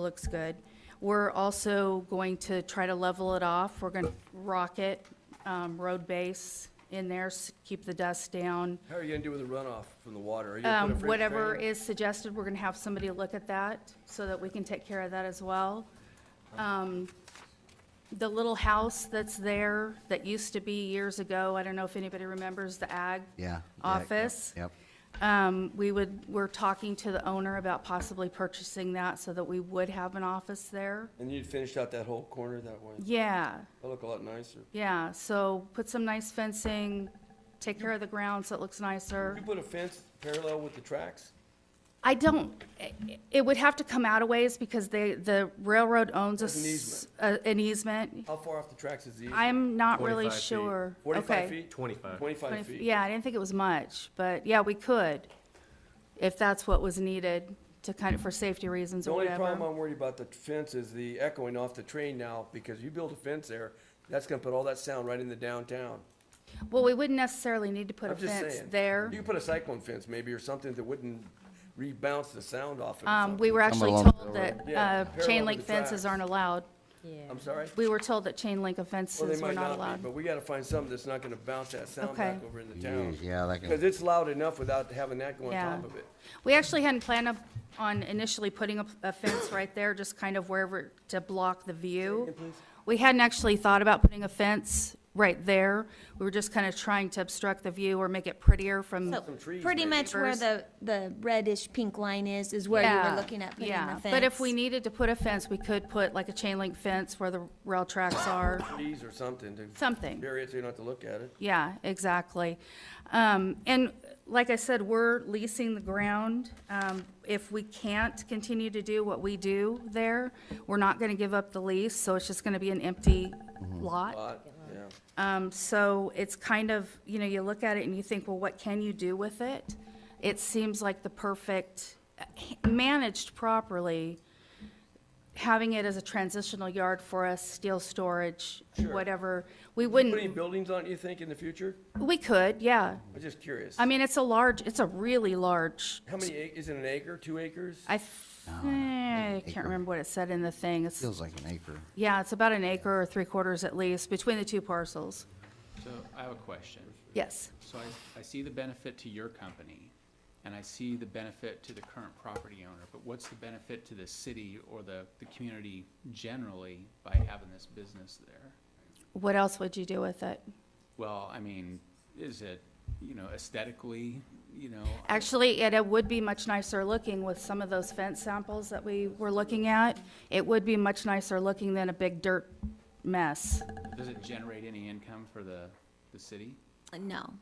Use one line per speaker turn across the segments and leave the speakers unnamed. Looks good. We're also going to try to level it off. We're going to rock it, um, road base in there, s- keep the dust down.
How are you gonna do with the runoff from the water? Are you gonna put a
Um,
freight
Whatever
train?
is suggested, we're going to have somebody look at that so that we can take care of that as well. Um, The little house that's there that used to be years ago, I don't know if anybody remembers the ag
Yeah.
office.
Yep.
Um, We would, we're talking to the owner about possibly purchasing that so that we would have an office there.
And you'd finished out that whole corner that way?
Yeah,
That'd look a lot nicer.
yeah, so put some nice fencing, take care of the ground so it looks nicer.
Could you put a fence parallel with the tracks?
I don't, it would have to come out a ways because they, the railroad owns a
There's an
s- a- An easement.
How far off the tracks is the easement?
I'm not really
25 feet.
sure. Okay.
Forty-five feet?
25.
Twenty-five
Twenty-
feet?
Yeah, I didn't think it was much, but yeah, we could, if that's what was needed to kind of, for safety reasons
The
or
only
whatever.
problem I'm worried about the fence is the echoing off the train now, because you build a fence there, that's gonna put all that sound right in the downtown.
Well, we wouldn't necessarily need to put a
I'm just
fence
saying.
there.
You could put a cyclone fence maybe, or something that wouldn't rebounce the sound off it or
Um, we were
something.
actually
along the
told that,
Yeah,
uh, chain
parallel
link
with the
fences
tracks.
aren't allowed.
Yeah.
I'm sorry?
We were told that chain link
Well, they
offenses were
might
not
not be,
allowed.
but we gotta find something that's not gonna bounce that sound back
Okay.
over in the town.
Yeah, that
Because
can,
it's loud enough without having that going
Yeah.
on top of it.
We actually hadn't planned up- on initially putting a a fence right there, just kind of wherever to block the view. We hadn't actually thought about putting a fence right there. We were just kind of trying to obstruct the view or make it prettier from,
So
Some trees,
pretty
maybe.
much where
First-
the, the reddish pink line is, is where you
Yeah,
were looking at putting the
yeah.
fence.
But if we needed to put a fence, we could put like a chain link fence where the rail tracks are,
Trees or something to
something.
bury it so you don't have to look at it.
Yeah, exactly. Um, and like I said, we're leasing the ground. Um, if we can't continue to do what we do there, we're not gonna give up the lease, so it's just gonna be an empty lot.
Lot, yeah.
Um, so it's kind of, you know, you look at it and you think, well, what can you do with it? It seems like the perfect, eh, managed properly, having it as a transitional yard for us, steel storage,
Sure.
whatever. We
Put any
wouldn't,
buildings on it, you think, in the future?
we could, yeah.
I'm just curious.
I mean, it's a large, it's a really large,
How many, ac- is it an acre, two acres?
I, f- eh, I can't remember what it said in the thing. It's,
feels like an acre.
yeah, it's about an acre or three quarters at least, between the two parcels.
So I have a question.
Yes,
So I, I see the benefit to your company, and I see the benefit to the current property owner, but what's the benefit to the city or the, the community generally by having this business there?
what else would you do with it?
Well, I mean, is it, you know, aesthetically, you know? I-
Actually, it it would be much nicer looking with some of those fence samples that we were looking at. It would be much nicer looking than a big dirt mess.
Does it generate any income for the, the city?
No.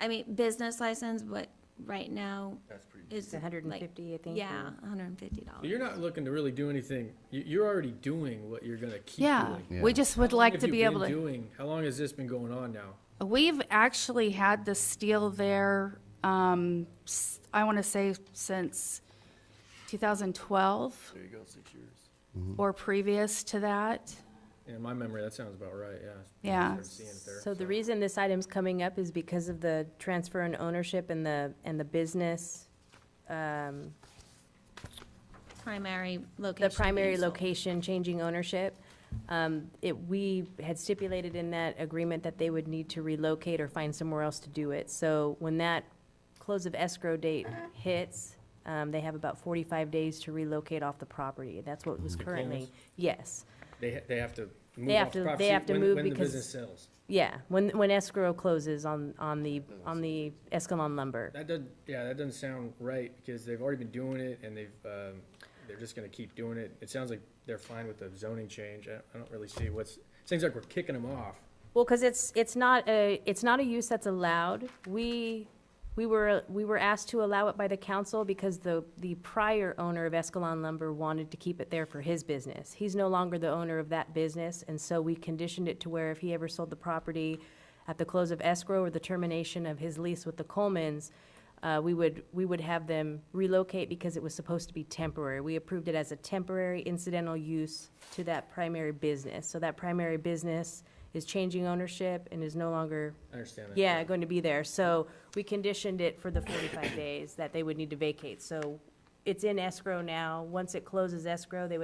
I mean, business license, but right now
That's pretty.
is.
It's
like-
150, I think,
Yeah,
or-
hundred and fifty dollars.
You're not looking to really do anything. You, you're already doing what you're gonna keep doing.
Yeah,
Yeah.
we just would
How long
like
have
to
you
be able
been
to.
Doing, how long has this been going on now?
We've actually had the steel there, um, s- I want to say since 2012
There you go, six years.
or previous to that.
In my memory, that sounds about right, yeah.
Yeah.
I'm seeing it there,
So the reason this item's coming up is because of the transfer and ownership and the, and the business, um,
Primary location.
the primary
being sold.
location changing ownership. Um, It, we had stipulated in that agreement that they would need to relocate or find somewhere else to do it. So when that close of escrow date hits, um, they have about 45 days to relocate off the property. That's what was currently,
close?
yes.
They, ha- they have to move
have
off the
to-
property
they have to
when-
move
When the
because-
business sells.
Yeah, when, when escrow closes on, on the, on the Escalon lumber.
That doesn't, yeah, that doesn't sound right, because they've already been doing it, and they've, um, they're just gonna keep doing it. It sounds like they're fine with the zoning change. I, I don't really see what's, seems like we're kicking them off.
Well, because it's, it's not a, it's not a use that's allowed. We, we were, we were asked to allow it by the council because the, the prior owner of Escalon Lumber wanted to keep it there for his business. He's no longer the owner of that business, and so we conditioned it to where if he ever sold the property at the close of escrow or the termination of his lease with the Colemans, uh, we would, we would have them relocate because it was supposed to be temporary. We approved it as a temporary incidental use to that primary business. So that primary business is changing ownership and is no longer,
I understand that.
yeah, going to be there. So we conditioned it for the forty-five days that they would need to vacate. So it's in escrow now. Once it closes escrow, they would